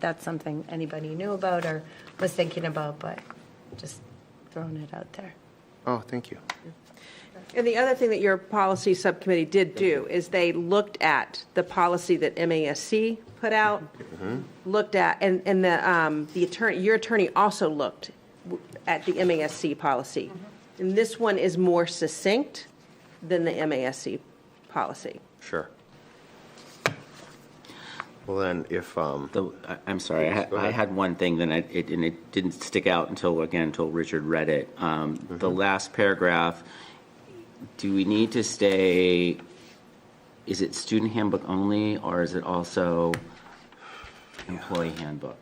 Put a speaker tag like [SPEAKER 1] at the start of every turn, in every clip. [SPEAKER 1] that's something anybody knew about or was thinking about, but just throwing it out there.
[SPEAKER 2] Oh, thank you.
[SPEAKER 3] And the other thing that your policy subcommittee did do is they looked at the policy that MASC put out,
[SPEAKER 4] Mm-hmm.
[SPEAKER 3] looked at, and, and the, um, the attorney, your attorney also looked w- at the MASC policy.
[SPEAKER 4] Mm-hmm.
[SPEAKER 3] And this one is more succinct than the MASC policy.
[SPEAKER 2] Sure. Well, then, if, um,
[SPEAKER 4] The- I- I'm sorry, I had-
[SPEAKER 2] Go ahead.
[SPEAKER 4] I had one thing, then I- it, and it didn't stick out until, again, until Richard read it. Um, The
[SPEAKER 2] Mm-hmm.
[SPEAKER 4] last paragraph, do we need to stay, is it student handbook only, or is it also employee handbook?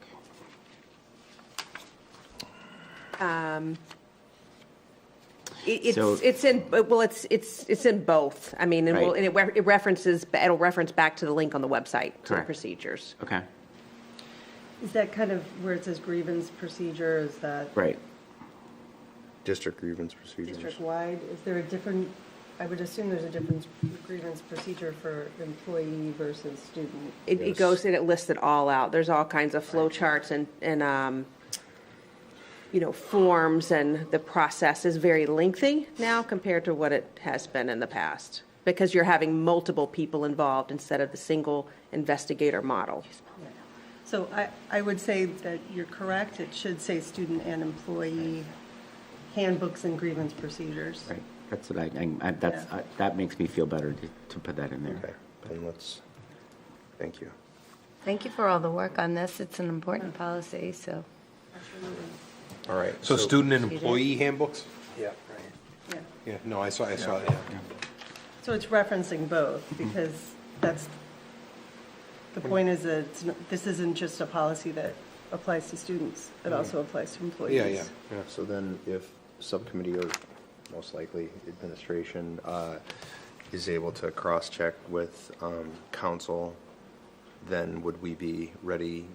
[SPEAKER 3] It-
[SPEAKER 4] So-
[SPEAKER 3] It's, it's in, well, it's, it's, it's in both. I mean, and we'll-
[SPEAKER 4] Right.
[SPEAKER 3] and it re- it references, it'll reference back to the link on the website, to the
[SPEAKER 4] Correct.
[SPEAKER 3] procedures.
[SPEAKER 4] Okay,
[SPEAKER 5] Is that kind of where it says grievance procedure, is that
[SPEAKER 4] right.
[SPEAKER 2] district grievance procedures.
[SPEAKER 5] district-wide? Is there a different, I would assume there's a different grievance procedure for employee versus student.
[SPEAKER 3] It, it goes and it lists it all out. There's all kinds of flow charts and, and, um, you know, forms and the process is very lengthy now compared to what it has been in the past. Because you're having multiple people involved instead of the single investigator model.
[SPEAKER 5] So I, I would say that you're correct, it should say student and employee handbooks and grievance procedures.
[SPEAKER 4] Right, that's what I, I- I, that's,
[SPEAKER 5] Yeah.
[SPEAKER 4] I- that makes me feel better to, to put that in
[SPEAKER 2] Okay,
[SPEAKER 4] there.
[SPEAKER 2] then let's, thank you.
[SPEAKER 1] Thank you for all the work on this. It's an important policy, so.
[SPEAKER 2] All right.
[SPEAKER 6] So student and employee handbooks?
[SPEAKER 2] Yeah, right.
[SPEAKER 5] Yeah.
[SPEAKER 6] Yeah, no, I saw, I saw it.
[SPEAKER 5] So it's referencing both,
[SPEAKER 4] Mm-hmm.
[SPEAKER 5] because that's, the point is that it's not- this isn't just a policy that applies to students, it also applies to employees.
[SPEAKER 6] Yeah, yeah, yeah.
[SPEAKER 2] So then, if subcommittee or most likely administration uh, is able to cross-check with um, council, then would we be ready?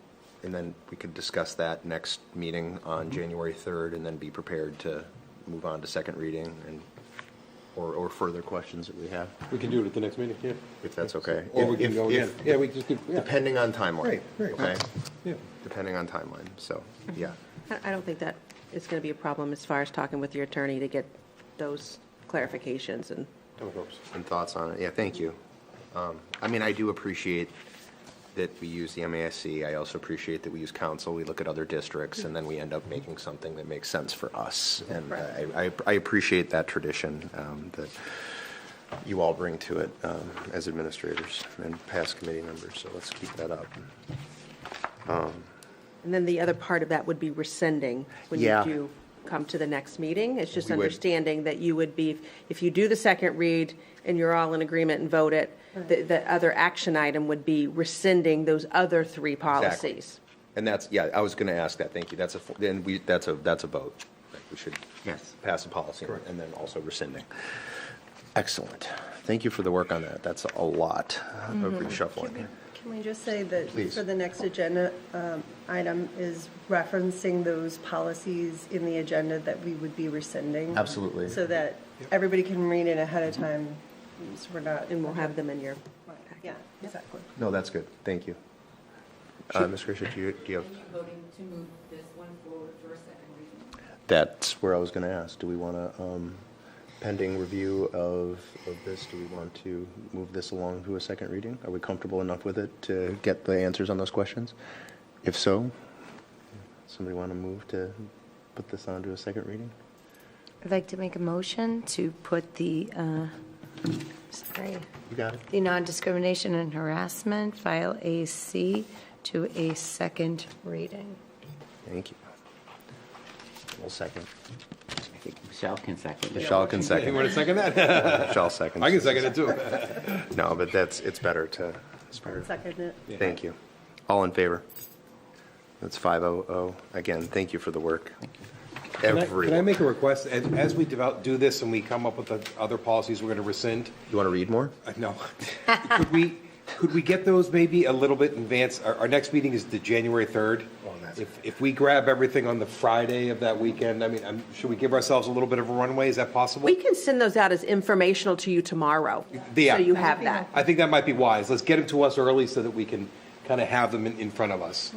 [SPEAKER 2] And then we could discuss that next meeting on
[SPEAKER 6] Mm-hmm.
[SPEAKER 2] January 3rd and then be prepared to move on to second reading and, or, or further questions that we have,
[SPEAKER 6] We can do it at the next meeting, yeah.
[SPEAKER 2] if that's okay.
[SPEAKER 6] Or we can
[SPEAKER 2] If-
[SPEAKER 6] go
[SPEAKER 2] if-
[SPEAKER 6] again. Yeah, we just could, yeah,
[SPEAKER 2] Depending on timeline,
[SPEAKER 6] Right, right.
[SPEAKER 2] okay?
[SPEAKER 6] yeah.
[SPEAKER 2] Depending on timeline, so, yeah.
[SPEAKER 3] I, I don't think that is gonna be a problem as far as talking with your attorney to get those clarifications and
[SPEAKER 6] No problems.
[SPEAKER 2] and thoughts on it. Yeah, thank you. Um, I mean, I do appreciate that we use the MASC. I also appreciate that we use council. We look at other districts, and then we end up making something that makes sense for us. And uh, I, I- I appreciate that tradition um, that you all bring to it um, as administrators and past committee members, so let's keep that up.
[SPEAKER 3] And then the other part of that would be rescinding when you
[SPEAKER 2] Yeah.
[SPEAKER 3] do come to the next meeting. It's just
[SPEAKER 2] We would.
[SPEAKER 3] understanding that you would be, if you do the second read and you're all in agreement and vote it, the, the other action item would be rescinding those other three policies.
[SPEAKER 2] And that's, yeah, I was going to ask that, thank you. That's a, fo- then we, that's a, that's a vote. Like, We should
[SPEAKER 4] Yes.
[SPEAKER 2] pass a policy and then also rescinding. Excellent. Thank you for the work on that. That's a lot of reshuffling.
[SPEAKER 5] Mm-hmm. Can we just say that
[SPEAKER 2] Please.
[SPEAKER 5] for the next agenda um, item is referencing those policies in the agenda that we would be rescinding?
[SPEAKER 2] Absolutely.
[SPEAKER 5] So that everybody can read it ahead of time, so we're not.
[SPEAKER 3] And we'll have them in your,
[SPEAKER 5] Yeah, exactly.
[SPEAKER 2] No, that's good. Thank you. Uh, Ms. Grisha, do you, do you have,
[SPEAKER 7] Are you voting to move this one forward for a second reading?
[SPEAKER 2] that's where I was going to ask. Do we want to, pending review of, of this, do we want to move this along to a second reading? Are we comfortable enough with it to get the answers on those questions? If so, somebody want to move to put this on to a second reading?
[SPEAKER 1] I'd like to make a motion to put the, uh, sorry,
[SPEAKER 2] You got it.
[SPEAKER 1] the non-discrimination and harassment, file AC, to a second reading.
[SPEAKER 2] Thank you. We'll second.
[SPEAKER 4] I think Michelle can second.
[SPEAKER 2] Michelle can
[SPEAKER 6] You
[SPEAKER 2] second.
[SPEAKER 6] want to second that?
[SPEAKER 2] Michelle seconds.
[SPEAKER 6] I can second it too.
[SPEAKER 2] No, but that's, it's better to, it's better.
[SPEAKER 5] Second it.
[SPEAKER 2] Thank you. All in favor? That's 500. Again, thank you for the work.
[SPEAKER 6] Can I- Can I
[SPEAKER 2] Everyone.
[SPEAKER 6] make a request? As, as we develop, do this and we come up with the other policies we're going to rescind,
[SPEAKER 2] You want to read more?
[SPEAKER 6] uh, no. Could we, could we get those maybe a little bit in advance? Our, our next meeting is the January 3rd.
[SPEAKER 2] that's-
[SPEAKER 6] If, if we grab everything on the Friday of that weekend, I mean, um, should we give ourselves a little bit of a runway? Is that possible?
[SPEAKER 3] we can send those out as informational to you tomorrow.
[SPEAKER 6] Yeah.
[SPEAKER 3] So you have that.
[SPEAKER 6] I think that might be wise. Let's get them to us early so that we can kind of have them in, in front of us.